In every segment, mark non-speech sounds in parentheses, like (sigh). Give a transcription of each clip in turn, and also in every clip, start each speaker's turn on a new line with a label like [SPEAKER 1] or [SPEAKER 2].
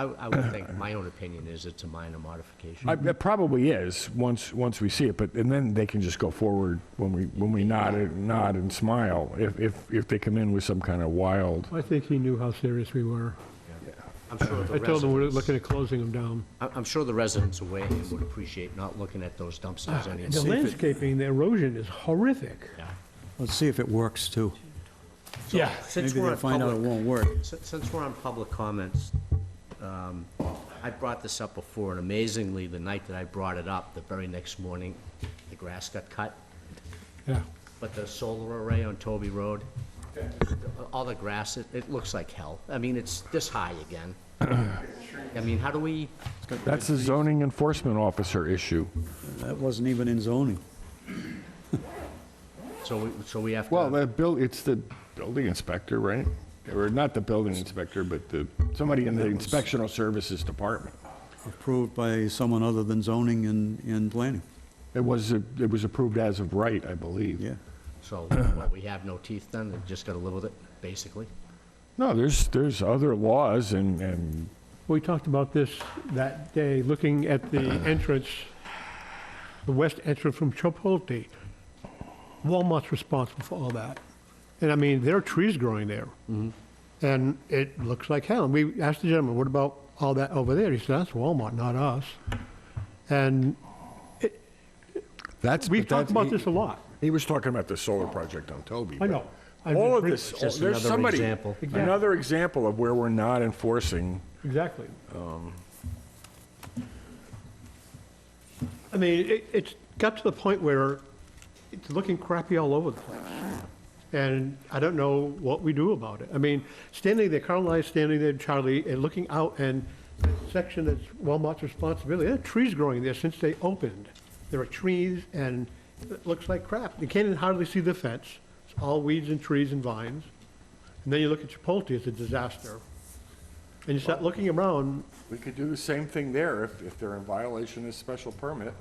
[SPEAKER 1] I, I would think, my own opinion is it's a minor modification.
[SPEAKER 2] I- It probably is, once, once we see it, but, and then they can just go forward when we, when we nod, and- nod and smile, if, if, if they come in with some kind of wild,
[SPEAKER 3] I think he knew how serious we were.
[SPEAKER 1] I'm sure the
[SPEAKER 3] I told him we're
[SPEAKER 1] residents,
[SPEAKER 3] looking at closing them down.
[SPEAKER 1] I- I'm sure the residents of Wareham would appreciate not looking at those dumpsters
[SPEAKER 3] The
[SPEAKER 1] anymore.
[SPEAKER 3] landscaping, the erosion is horrific.
[SPEAKER 4] Let's see if it works, too.
[SPEAKER 3] Yeah.
[SPEAKER 4] Maybe
[SPEAKER 1] Since we're
[SPEAKER 4] they'll
[SPEAKER 1] on
[SPEAKER 4] find out it
[SPEAKER 1] public
[SPEAKER 4] won't work.
[SPEAKER 1] Si- Since we're on public comments, um, I brought this up before, and amazingly, the night that I brought it up, the very next morning, the grass got cut,
[SPEAKER 3] Yeah.
[SPEAKER 1] but the solar array on Toby Road, all the grass, it, it looks like hell. I mean, it's this high again. I mean, how do we,
[SPEAKER 2] that's a zoning enforcement officer issue.
[SPEAKER 4] That wasn't even in zoning.
[SPEAKER 1] so we, so we have to.
[SPEAKER 2] Well, the bill, it's the building inspector, right? Or not the building inspector, but the, somebody in the inspectional services department.
[SPEAKER 4] Approved by someone other than zoning and, and planning,
[SPEAKER 2] It was, it was approved as of right, I believe.
[SPEAKER 4] yeah.
[SPEAKER 1] (coughs) So, what, we have no teeth then, we've just gotta live with it, basically?
[SPEAKER 2] No, there's, there's other laws and, and
[SPEAKER 3] We talked about this that day, looking at the entrance, the west entrance from Chipotle. Walmart's responsible for all that. And I mean, there are trees growing there. And it looks like hell. And we asked the gentleman, what about all that over there? He said, that's Walmart, not us. And
[SPEAKER 2] that's.
[SPEAKER 3] we've
[SPEAKER 2] but that's-
[SPEAKER 3] talked about
[SPEAKER 2] he-
[SPEAKER 3] this a lot.
[SPEAKER 2] He was talking about the solar project on Toby.
[SPEAKER 3] I
[SPEAKER 2] but
[SPEAKER 3] know. I'm
[SPEAKER 2] All
[SPEAKER 3] just
[SPEAKER 2] of
[SPEAKER 3] bring-
[SPEAKER 2] this,
[SPEAKER 1] It's just
[SPEAKER 2] there's
[SPEAKER 1] another
[SPEAKER 2] somebody,
[SPEAKER 1] example.
[SPEAKER 3] Exactly.
[SPEAKER 2] another example of where we're not enforcing.
[SPEAKER 3] Exactly. I mean, it, it's got to the point where it's looking crappy all over the place. And I don't know what we do about it. I mean, standing there, Carl and I standing there, Charlie, and looking out and the section that's Walmart's responsibility, there are trees growing there since they opened. There are trees and it looks like crap. You can't even hardly see the fence. It's all weeds and trees and vines. And then you look at Chipotle, it's a disaster. And you start looking around,
[SPEAKER 2] We could do the same thing there if, if they're in violation of this special permit.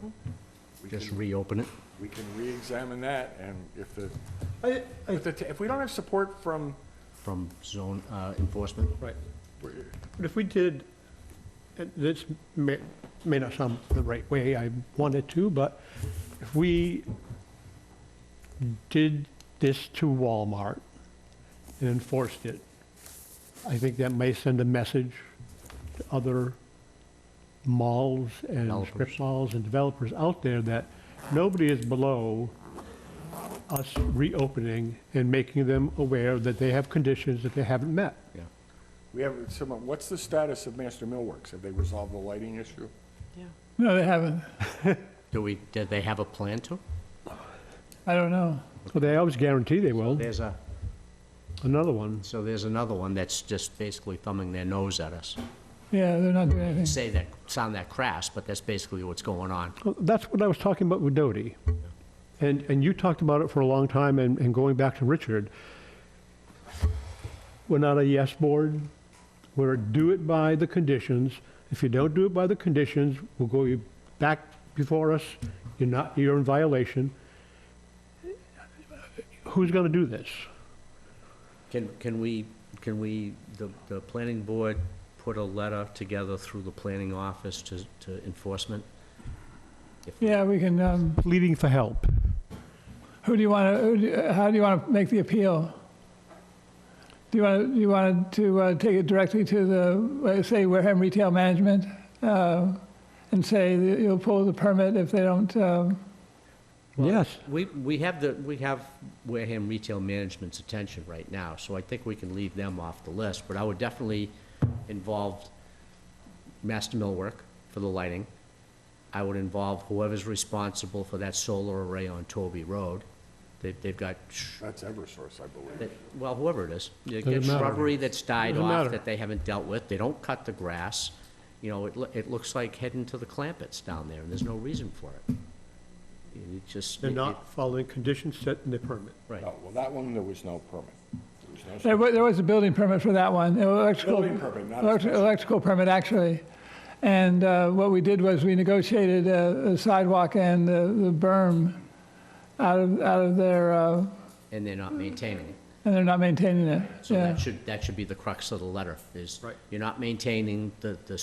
[SPEAKER 2] We
[SPEAKER 1] Just
[SPEAKER 2] can,
[SPEAKER 1] reopen it?
[SPEAKER 2] we can re-examine that and if the,
[SPEAKER 3] I, I,
[SPEAKER 2] if the, t- if we don't have support from,
[SPEAKER 1] from zone uh, enforcement?
[SPEAKER 3] right. But if we did, and this may, may not sound the right way I wanted to, but if we did this to Walmart and enforced it, I think that may send a message to other malls and strip
[SPEAKER 1] Developers.
[SPEAKER 3] malls and developers out there that nobody is below us reopening and making them aware that they have conditions that they haven't met.
[SPEAKER 1] Yeah.
[SPEAKER 2] we have, someone, what's the status of Master Millworks? Have they resolved the lighting issue?
[SPEAKER 5] No, they haven't.
[SPEAKER 1] Do we, did they have a plan to?
[SPEAKER 5] I don't know.
[SPEAKER 3] Well, they always guarantee they will.
[SPEAKER 1] There's a,
[SPEAKER 3] Another one.
[SPEAKER 1] so there's another one that's just basically thumbing their nose at us.
[SPEAKER 5] Yeah, they're not doing anything.
[SPEAKER 1] Say that, sound that crass, but that's basically what's going on.
[SPEAKER 3] Well, That's what I was talking about with Doty. And, and you talked about it for a long time, and, and going back to Richard, we're not a yes board. We're a do it by the conditions. If you don't do it by the conditions, we'll go you back before us. You're not, you're in violation. Who's gonna do this?
[SPEAKER 1] Can, can we, can we, the, the planning board put a letter together through the planning office to, to enforcement?
[SPEAKER 5] Yeah, we can, um,
[SPEAKER 3] Pleading for help.
[SPEAKER 5] who do you want to, how do you want to make the appeal? Do you want to, do you want to uh, take it directly to the, uh, say, Wareham Retail Management? uh, And say that you'll pull the permit if they don't, um,
[SPEAKER 3] Yes.
[SPEAKER 1] We, we have the, we have Wareham Retail Management's attention right now, so I think we can leave them off the list, but I would definitely involve Master Millwork for the lighting. I would involve whoever's responsible for that solar array on Toby Road. They've, they've got, sh-
[SPEAKER 2] That's Eversource, I believe.
[SPEAKER 1] that- well, whoever it is, they've got
[SPEAKER 3] Doesn't matter.
[SPEAKER 1] shrubbery that's died
[SPEAKER 3] Doesn't
[SPEAKER 1] off
[SPEAKER 3] matter.
[SPEAKER 1] that they haven't dealt with. They don't cut the grass. You know, it, loo- it looks like heading to the Clampets down there, and there's no reason for it. It just.
[SPEAKER 3] They're
[SPEAKER 1] it-
[SPEAKER 3] not following conditions set in the permit.
[SPEAKER 1] Right.
[SPEAKER 2] No, Oh, well, that one, there was no permit. There was no
[SPEAKER 5] there wa- there was a building permit for that one. electrical-
[SPEAKER 2] Building permit, not a
[SPEAKER 5] elect-
[SPEAKER 2] special.
[SPEAKER 5] Electrical permit, actually. And uh, what we did was we negotiated a a sidewalk and the the berm out of, out of their, uh,
[SPEAKER 1] and they're not maintaining it.
[SPEAKER 5] and and they're not maintaining it.
[SPEAKER 1] So
[SPEAKER 5] Yeah.
[SPEAKER 1] that should, that should be the crux of the letter, is
[SPEAKER 3] Right.
[SPEAKER 1] you're not maintaining the, the